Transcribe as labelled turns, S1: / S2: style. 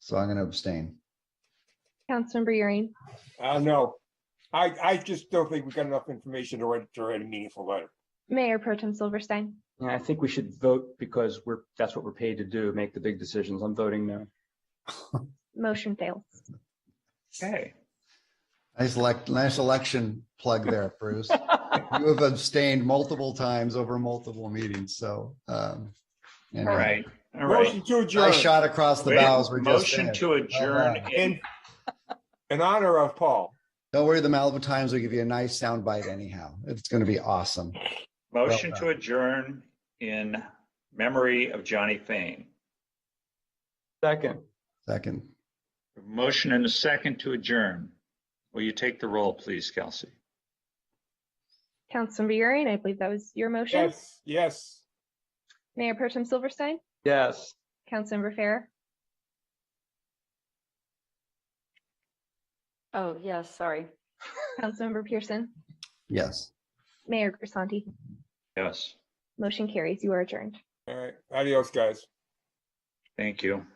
S1: So I'm gonna abstain.
S2: Councilmember Euring,
S3: Uh, no. I, I just don't think we got enough information to write, to write a meaningful letter.
S2: Mayor Pro Tem Silverstein,
S4: Yeah, I think we should vote because we're, that's what we're paid to do, make the big decisions. I'm voting no.
S2: motion fails.
S4: Okay.
S1: Nice elect, nice election plug there, Bruce. You have abstained multiple times over multiple meetings, so. um,
S5: All
S1: anyway.
S5: right, all right.
S3: Motion to
S1: I
S3: adjourn
S1: shot across the
S5: Wait,
S1: bows. We're just in
S5: Motion
S1: it.
S5: to adjourn
S1: Bye-bye.
S5: in
S3: in, in honor of Paul.
S1: Don't worry, the Malibu Times will give you a nice soundbite anyhow. It's gonna be awesome.
S5: Motion
S1: Well
S5: to adjourn in memory of Johnny Fain.
S4: Second,
S1: Second,
S5: Motion and a second to adjourn. Will you take the roll, please, Kelsey?
S2: Councilmember Euring, I believe that was your motion.
S3: Yes, yes.
S2: Mayor Pro Tem Silverstein,
S4: yes.
S2: Councilmember Fair,
S6: Oh, yes, sorry.
S2: Councilmember Pearson,
S1: yes.
S2: Mayor Grisanti.
S5: Yes,
S2: Motion carries. You are adjourned.
S3: All right. Adios, guys.
S5: thank you.